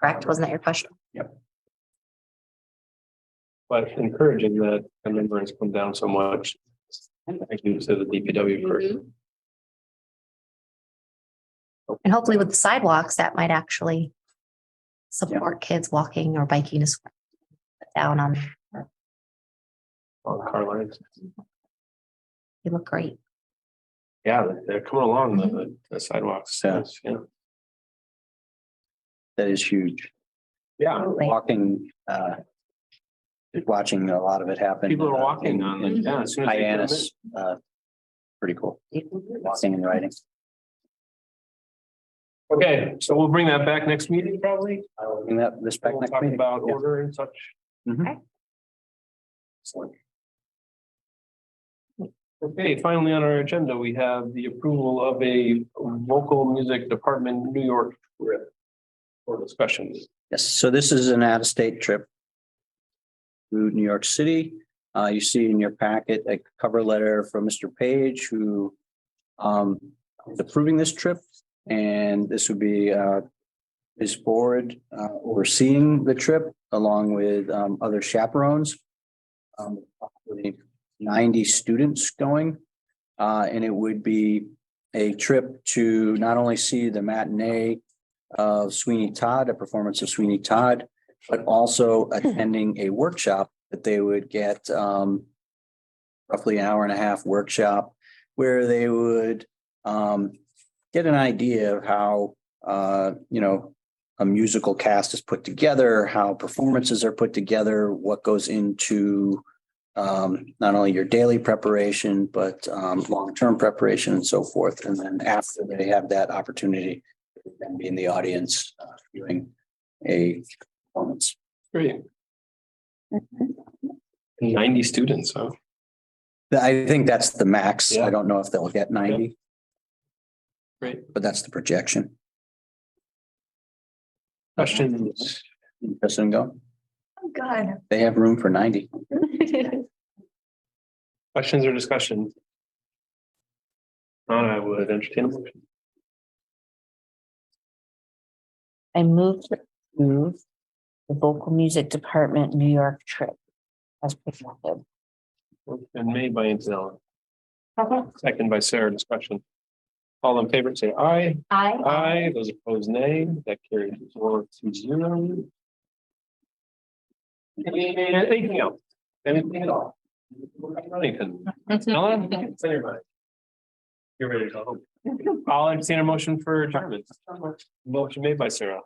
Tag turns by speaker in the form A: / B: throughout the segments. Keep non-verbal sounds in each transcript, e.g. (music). A: correct? Wasn't that your question?
B: But encouraging that the number has come down so much. I can say the DPW person.
A: And hopefully with the sidewalks, that might actually support kids walking or biking to school. Down on,
B: on car lines.
A: they look great.
B: Yeah, they're- they're coming along the- the sidewalks.
C: Yeah.
B: Yeah.
C: That is huge.
B: Yeah,
C: Oh,
A: Absolutely.
C: Walking, uh, just watching a lot of it happen.
B: people are walking on it.
C: the
B: Yeah. as soon as they come in.
C: Hyannis, uh, pretty cool. Walking and riding.
B: Okay, so we'll bring that back next meeting probably.
C: I will bring that this back
B: We'll
C: next
B: talk
C: meeting.
B: about
C: Yeah.
B: order and such.
C: Mhm.
A: Okay.
B: Excellent. Okay, finally on our agenda, we have the approval of a vocal music department New York trip for discussion.
C: Yes, so this is an out-of-state trip to New York City. Uh, you see in your packet a cover letter from Mr. Page who um, is approving this trip. And this would be uh, his board uh, overseeing the trip along with um, other chaperones. Um, probably Ninety students going. Uh, and it would be a trip to not only see the matinee of Sweeney Todd, a performance of Sweeney Todd, but also attending a workshop that they would get um roughly an hour and a half workshop where they would um get an idea of how uh, you know, a musical cast is put together, how performances are put together, what goes into um not only your daily preparation, but um long-term preparation and so forth. And then after they have that opportunity, and be in the audience uh, viewing a performance.
B: Great. Ninety students, huh?
C: I think that's the max.
B: Yeah.
C: I don't know if they'll get ninety.
B: Great.
C: But that's the projection.
B: Questions?
C: Interested in going?
A: Good.
C: They have room for ninety.
B: Questions or discussion? Not, I would entertain a motion.
D: I move to approve the vocal music department New York trip. As presented.
B: And made by Antonella, second by Sarah, discussion. All in favor, say aye.
A: (laughs) I,
B: Aye, those opposed, nay. That carries four to zero. Anything else? Anything at all? Anything? Ellen, it's in your mind. You're ready to go. I'll entertain a motion for adjournment. Motion made by Sarah.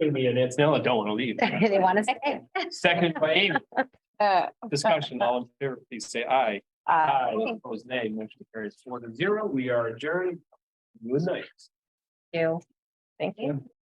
B: It'll be an Antonella, don't want to leave.
A: they want to say.
B: Second by Amy,
D: Uh,
B: discussion, all in favor, please say aye. Aye, those opposed, nay. Motion carries four to zero. We are adjourned. Good night.
A: You. Thank
B: you.